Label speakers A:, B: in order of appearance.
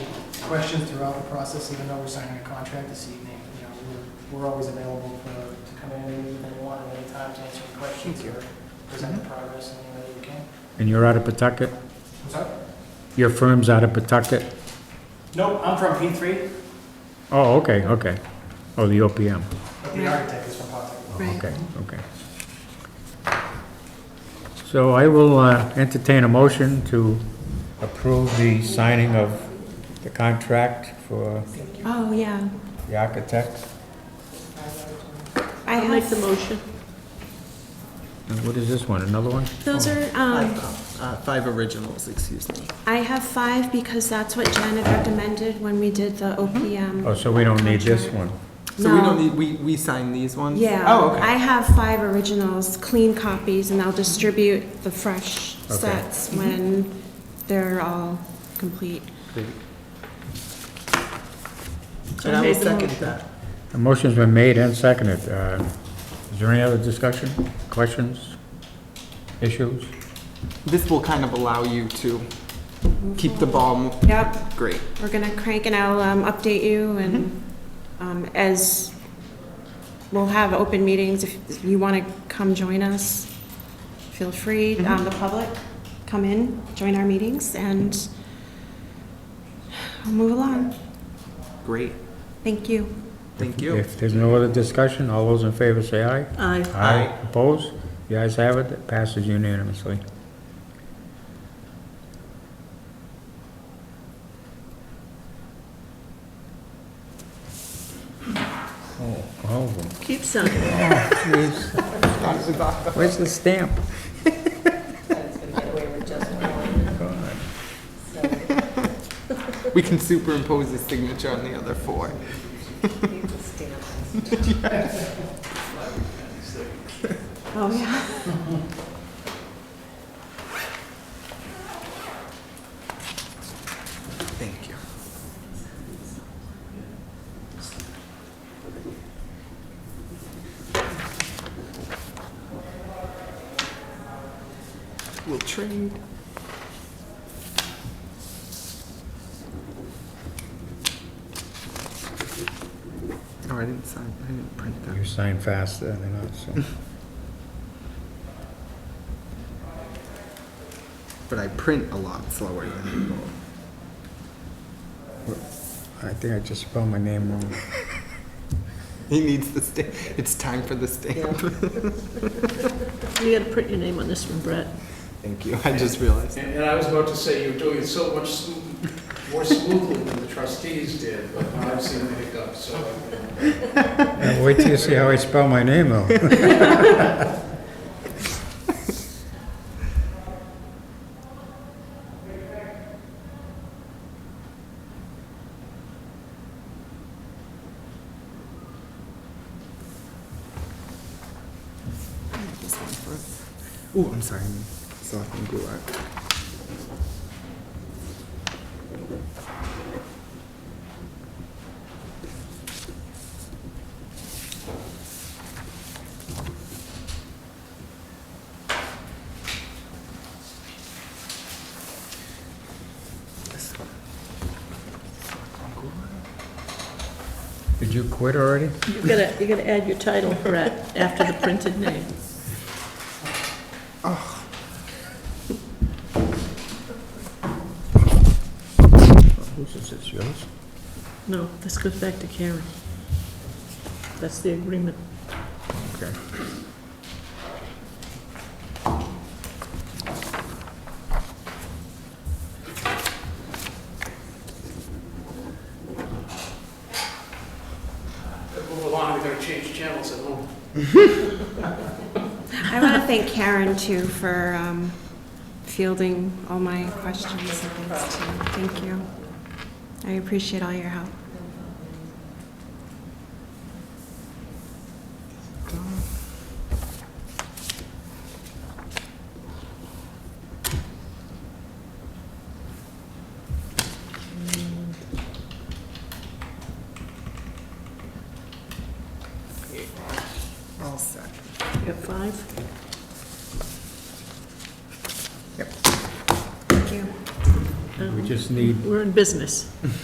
A: questions throughout the process, even though we're signing a contract this evening. You know, we're, we're always available for, to come in and meet with anyone at any time to answer any questions or present the progress in any way we can.
B: And you're out of Pawtucket?
A: What's up?
B: Your firm's out of Pawtucket?
A: Nope, I'm from P three,
B: Oh, okay, okay. Oh, the OPM.
A: but the architect is from Pawtucket.
B: Okay, okay. So I will uh, entertain a motion to approve the signing of the contract for
C: Oh, yeah.
B: the architect.
C: I
D: I'll make the
C: have,
D: motion.
B: And what is this one, another one?
C: those are, um,
E: Uh, Five originals, excuse me.
C: I have five because that's what Janet recommended when we did the OPM.
B: Oh, so we don't need this
C: contract.
B: one?
E: So we don't
C: No.
E: need, we, we sign these ones?
C: Yeah.
E: Oh, okay.
C: I have five originals, clean copies, and I'll distribute the fresh
B: Okay.
C: sets when they're all complete.
E: And I will second that.
B: A motion's been made and seconded. Uh, Is there any other discussion, questions, issues?
E: This will kind of allow you to keep the ball, mo-
C: Yep.
E: great.
C: We're gonna crank and I'll um, update you and um, as, we'll have open meetings, if you want to come join us, feel free, um, the public, come in, join our meetings and we'll move along.
E: Great,
C: Thank you.
E: thank you.
B: If there's no other discussion, all those in favor say aye.
D: Aye.
E: Aye.
B: Opposed? The ayes have it, it passes unanimously. Oh, all of them.
D: Keep signing.
B: Jeez. Where's the stamp?
F: It's gonna get away with just one,
B: God.
F: so
E: We can superimpose his signature on the other four.
F: you can stand.
C: Oh, yeah.
E: Thank you. We'll trade. Oh, I didn't sign, I didn't print
B: You
E: that.
B: sign faster than us, so.
E: But I print a lot slower than people.
B: I think I just spelled my name wrong.
E: He needs the stamp. It's time for the stamp.
D: You gotta print your name on this one, Brett.
E: Thank you, I just realized.
G: And, and I was about to say, you're doing it so much smooth- more smoothly than the trustees did, but I've seen the hiccups, so.
B: Yeah, Wait till you see how I spell my name though.
E: This one first. Ooh, I'm sorry. I'm Selectman Goulart. This one. Selectman Goulart.
B: Did you quit already?
D: You gotta, you gotta add your title, Brett, after the printed name.
B: Whose is this, yours?
D: No, this goes back to Karen. That's the agreement.
B: Okay.
G: Move along, we're gonna change channels at home.
C: I want to thank Karen too for um, fielding all my questions and things too. Thank you. I appreciate all your help.
E: All set.
D: You got five?
C: Thank you.
B: We just need
D: We're in business.